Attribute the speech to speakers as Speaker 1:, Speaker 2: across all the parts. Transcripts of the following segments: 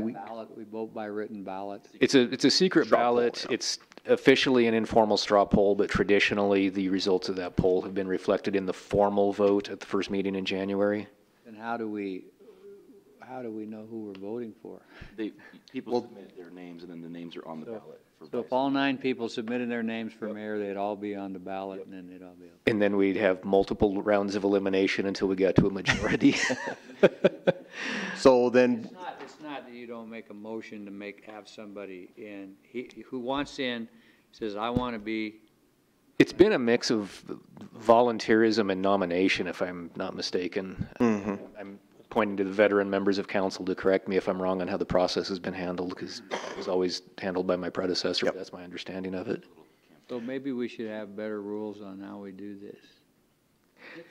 Speaker 1: week?
Speaker 2: Ballot, we vote by written ballot.
Speaker 3: It's a, it's a secret
Speaker 1: Straw poll,
Speaker 3: ballot.
Speaker 1: yeah.
Speaker 3: It's officially an informal straw poll, but traditionally, the results of that poll have been reflected in the formal vote at the first meeting in January.
Speaker 2: And how do we, how do we know who we're voting for?
Speaker 4: They, people submit their names, and then the names are on the ballot. for
Speaker 2: So
Speaker 4: vice.
Speaker 2: if all nine people submitted their names for mayor, they'd all be on the ballot and then they'd all be up.
Speaker 3: And then we'd have multiple rounds of elimination until we got to a majority.
Speaker 1: So then,
Speaker 2: It's not, it's not that you don't make a motion to make, have somebody in, he, who wants in, says, I want to be,
Speaker 3: It's been a mix of volunteerism and nomination, if I'm not mistaken.
Speaker 1: Hmm. mm-hmm,
Speaker 3: I'm pointing to the veteran members of council to correct me if I'm wrong on how the process has been handled, because it was always handled by my predecessor. but That's my understanding of it.
Speaker 2: so maybe we should have better rules on how we do this.
Speaker 5: This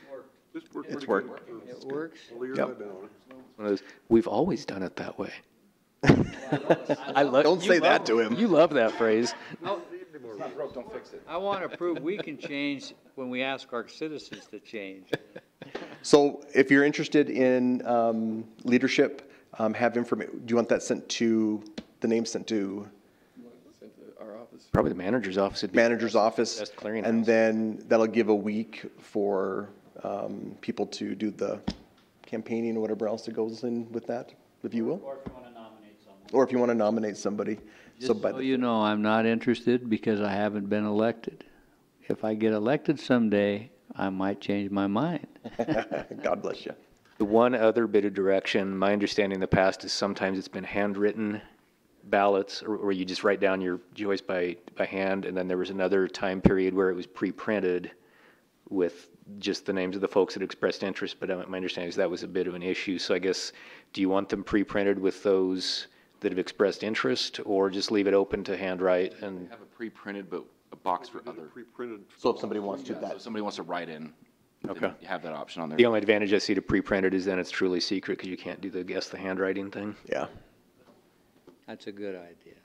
Speaker 5: worked
Speaker 1: It's
Speaker 5: pretty good.
Speaker 2: It works?
Speaker 5: All year
Speaker 1: Yep.
Speaker 5: I've been on it.
Speaker 3: One of those, We've always done it that way. I love.
Speaker 1: don't say that to him.
Speaker 3: You love that phrase.
Speaker 2: I want to prove we can change when we ask our citizens to change.
Speaker 1: So if you're interested in um, leadership, um, have information, do you want that sent to, the name sent to
Speaker 3: Probably the manager's office would be.
Speaker 1: manager's office?
Speaker 3: Best clearinghouse.
Speaker 1: And then that'll give a week for um, people to do the campaigning or whatever else that goes in with that, if you will? Or if you want to nominate somebody. So
Speaker 2: Just
Speaker 1: by
Speaker 2: so
Speaker 1: the,
Speaker 2: you know, I'm not interested because I haven't been elected. If I get elected someday, I might change my mind.
Speaker 1: God bless you.
Speaker 3: The one other bit of direction, my understanding in the past is sometimes it's been handwritten ballots, or, or you just write down your choice by, by hand, and then there was another time period where it was pre-printed with just the names of the folks that expressed interest, but uh, my understanding is that was a bit of an issue, so I guess, do you want them pre-printed with those that have expressed interest, or just leave it open to handwrite and?
Speaker 4: Have a pre-printed, but a box for other.
Speaker 5: Pre-printed.
Speaker 1: So if somebody wants to
Speaker 4: Yeah, so if somebody wants to write in, then
Speaker 3: Okay.
Speaker 4: you have that option on there.
Speaker 3: The only advantage I see to pre-printed is then it's truly secret, because you can't do the guess the handwriting thing.
Speaker 1: Yeah.
Speaker 2: That's a good idea.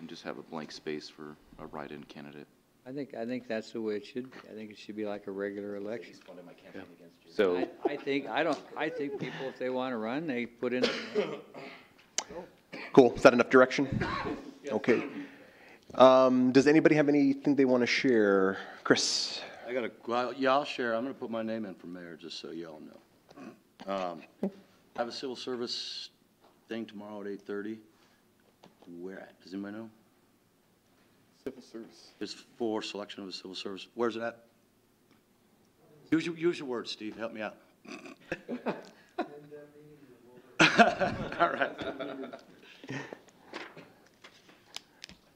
Speaker 4: And just have a blank space for a write-in candidate.
Speaker 2: I think, I think that's the way it should be. I think it should be like a regular election.
Speaker 3: So,
Speaker 2: I, I think, I don't, I think people, if they want to run, they put in,
Speaker 1: Cool. Is that enough direction? Okay. Um, Does anybody have anything they want to share? Chris?
Speaker 6: I got a, well, yeah, I'll share. I'm going to put my name in for mayor, just so y'all know. Um, I have a civil service thing tomorrow at 8:30. Where at? Does anybody know? Civil service. It's for selection of a civil service. Where's it at? Use your, use your words, Steve. Help me out. All right.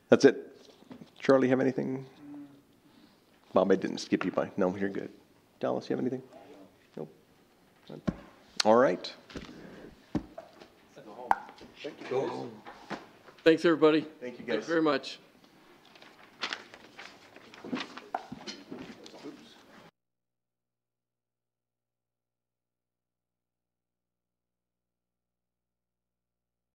Speaker 1: That's it? Charlie, have anything? Bob, I didn't skip you by. No, you're good. Dallas, you have anything? Nope. None. All right.
Speaker 7: Thanks, everybody.
Speaker 1: Thank you,
Speaker 7: Thank you very much.